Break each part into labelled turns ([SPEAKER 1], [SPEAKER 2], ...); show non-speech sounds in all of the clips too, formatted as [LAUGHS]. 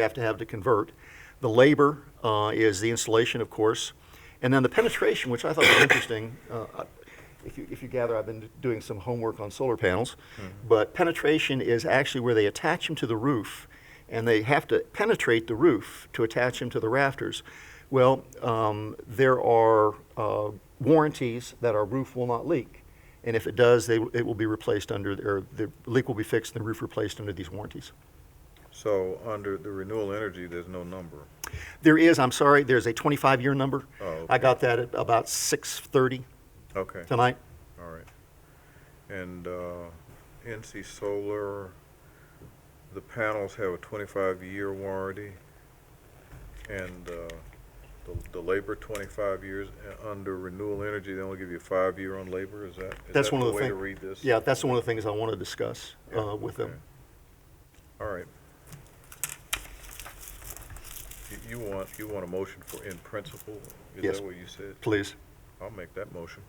[SPEAKER 1] have to have to convert. The labor uh, is the installation, of course, and then the penetration, which I thought was interesting. Uh, I- if, you, if you gather, I've been doing some homework on solar panels, but penetration is actually where they attach them to the roof, and they have to penetrate the roof to attach them to the rafters. Well, um, there are uh, warranties that our roof will not leak. And if it does, they, it will be replaced under, or the leak will be fixed and the roof replaced under these warranties.
[SPEAKER 2] So under the renewable energy, there's no number.
[SPEAKER 1] There is, I'm sorry, there's a 25-year number.
[SPEAKER 2] Oh, okay.
[SPEAKER 1] I got that at about 6:30
[SPEAKER 2] Okay, all
[SPEAKER 1] tonight.
[SPEAKER 2] right. And uh, NC Solar, the panels have a 25-year warranty, and uh, the- the labor 25 years. Uh, Under renewable energy, they only give you a five-year on labor, is that? is
[SPEAKER 1] That's
[SPEAKER 2] that
[SPEAKER 1] one of the
[SPEAKER 2] way to
[SPEAKER 1] thing-
[SPEAKER 2] read this?
[SPEAKER 1] Yeah, that's one of the things I want to discuss uh, with
[SPEAKER 2] Okay.
[SPEAKER 1] them.
[SPEAKER 2] All right. You- You want, you want a motion for in principle?
[SPEAKER 1] Yes.
[SPEAKER 2] Is that what you said?
[SPEAKER 1] Please.
[SPEAKER 2] I'll make that motion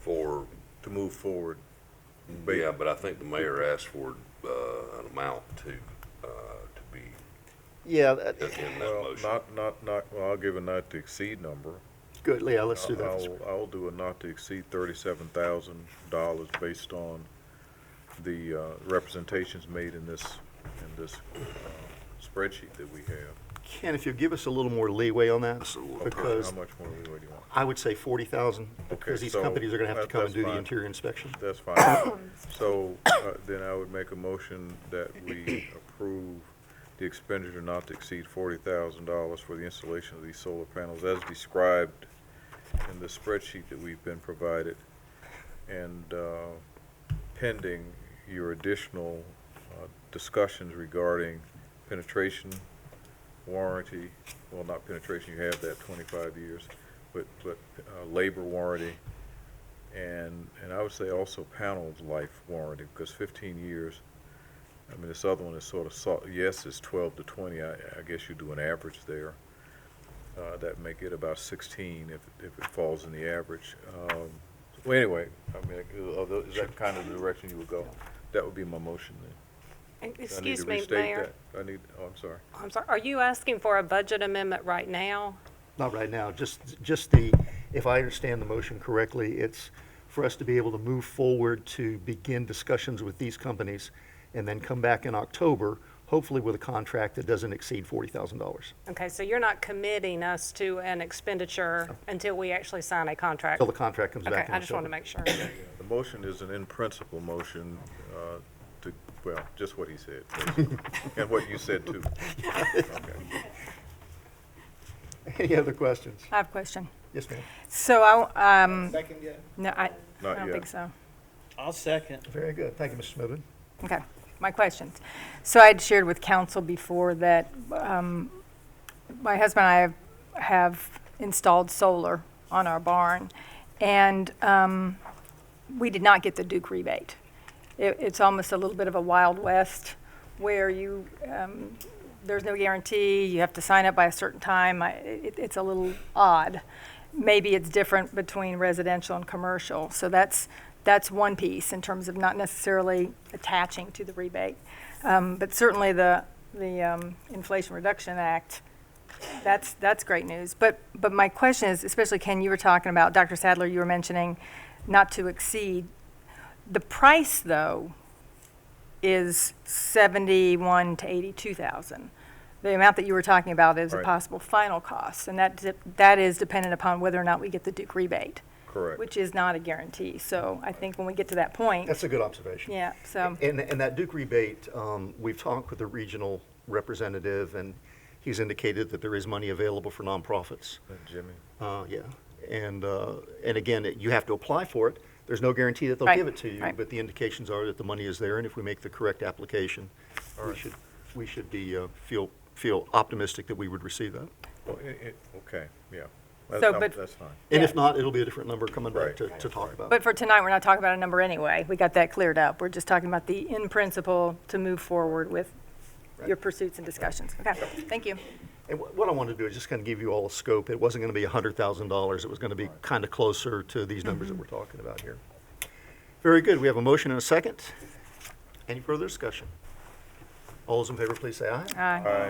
[SPEAKER 3] for,
[SPEAKER 2] to move forward. But-
[SPEAKER 3] yeah, but I think the mayor asked for, uh, an amount to, uh, to be
[SPEAKER 1] Yeah,
[SPEAKER 3] in
[SPEAKER 1] that-
[SPEAKER 3] in that
[SPEAKER 2] Well,
[SPEAKER 3] motion.
[SPEAKER 2] not, not, not, well, I'll give a not to exceed number.
[SPEAKER 1] good, yeah, let's do that.
[SPEAKER 2] I'll, I'll do a not to exceed thirty-seven thousand dollars based on the, uh, representations made in this, in this, uh, spreadsheet that we have.
[SPEAKER 1] Ken, if you'll give us a little more leeway on that,
[SPEAKER 3] Absolutely.
[SPEAKER 2] Okay,
[SPEAKER 1] because
[SPEAKER 2] How much more leeway do you want?
[SPEAKER 1] I would say 40,000, because these
[SPEAKER 2] so
[SPEAKER 1] companies are going to have to
[SPEAKER 2] that-
[SPEAKER 1] come and
[SPEAKER 2] that's
[SPEAKER 1] do the
[SPEAKER 2] fine.
[SPEAKER 1] interior inspection.
[SPEAKER 2] That's fine. So, uh, then I would make a motion that we approve the expenditure not to exceed forty thousand dollars for the installation of these solar panels as described in the spreadsheet that we've been provided and, uh, pending your additional, uh, discussions regarding penetration, warranty, well, not penetration, you have that twenty-five years, but, but, uh, labor warranty and, and I would say also panel life warranty, because fifteen years, I mean, this other one is sort of, so- yes, it's twelve to twenty, I, I guess you do an average there. Uh, that make it about sixteen if, if it falls in the average. Um, well, anyway, I mean, uh, although- is that kind of the direction you would go? That would be my motion then. I need to
[SPEAKER 4] Excuse me,
[SPEAKER 2] restate
[SPEAKER 4] Mayor.
[SPEAKER 2] that. I need, oh, I'm sorry.
[SPEAKER 4] I'm sorry, are you asking for a budget amendment right now?
[SPEAKER 1] Not right now, just, just the, if I understand the motion correctly, it's for us to be able to move forward to begin discussions with these companies and then come back in October, hopefully with a contract that doesn't exceed $40,000.
[SPEAKER 4] Okay, so you're not committing us to an expenditure until we actually sign a contract?
[SPEAKER 1] Till the contract comes back in
[SPEAKER 4] Okay,
[SPEAKER 1] October.
[SPEAKER 4] I just wanted to make sure.
[SPEAKER 2] The motion is an in-principle motion uh, to, well, just what he said, basically, and what you said too. Okay.
[SPEAKER 1] [LAUGHS] Any other questions?
[SPEAKER 5] I have a question.
[SPEAKER 1] Yes, ma'am.
[SPEAKER 5] So I, um,
[SPEAKER 6] Second yet?
[SPEAKER 5] no, I, I
[SPEAKER 2] Not
[SPEAKER 5] don't
[SPEAKER 2] yet.
[SPEAKER 5] think so.
[SPEAKER 6] I'll second.
[SPEAKER 1] Very good. Thank you, Mr. Smithman.
[SPEAKER 5] Okay, my questions. So I had shared with council before that, um, my husband and I have, have installed solar on our barn, and, um, we did not get the Duke rebate. It, it's almost a little bit of a Wild West where you, um, there's no guarantee, you have to sign up by a certain time. I, it, it's a little odd. Maybe it's different between residential and commercial. So that's, that's one piece in terms of not necessarily attaching to the rebate. Um, but certainly the, the um, Inflation Reduction Act that's, that's great news. But, but my question is, especially Ken, you were talking about, Dr. Sadler, you were mentioning not to exceed. The price, though, is seventy-one to eighty-two thousand. The amount that you were talking about is a
[SPEAKER 2] Right.
[SPEAKER 5] possible final cost, and that, de- that is dependent upon whether or not we get the Duke rebate,
[SPEAKER 2] Correct.
[SPEAKER 5] which is not a guarantee. So I think when we get to that point,
[SPEAKER 1] That's a good observation.
[SPEAKER 5] yeah, so,
[SPEAKER 1] And, and that Duke rebate, um, we've talked with the regional representative, and he's indicated that there is money available for nonprofits.
[SPEAKER 2] Uh, Jimmy,
[SPEAKER 1] Uh, yeah, and, uh, and again, it- you have to apply for it. There's no guarantee that they'll
[SPEAKER 5] Right,
[SPEAKER 1] give it to you,
[SPEAKER 5] right.
[SPEAKER 1] but the indications are that the money is there, and if we make the correct application, we should, we should be, uh, feel, feel optimistic that we would receive that.
[SPEAKER 2] well, i- i- okay, yeah. That's-
[SPEAKER 5] So,
[SPEAKER 2] I'm-
[SPEAKER 5] but-
[SPEAKER 2] That's fine.
[SPEAKER 1] And
[SPEAKER 5] Yeah.
[SPEAKER 1] if not, it'll be a different number coming back
[SPEAKER 2] Right,
[SPEAKER 1] to, to talk about.
[SPEAKER 5] but for tonight, we're not talking about a number anyway. We got that cleared up. We're just talking about the in principle to move forward with your pursuits and discussions. Okay, thank you.
[SPEAKER 1] And wh- what I wanted to do is just kind of give you all a scope. It wasn't going to be $100,000. It was going to be kind of closer to these numbers that
[SPEAKER 5] Mm-hmm.
[SPEAKER 1] we're talking about here. Very good. We have a motion and a second. Any further discussion?
[SPEAKER 7] All those in favor, please say aye.
[SPEAKER 1] Aye.
[SPEAKER 2] Aye.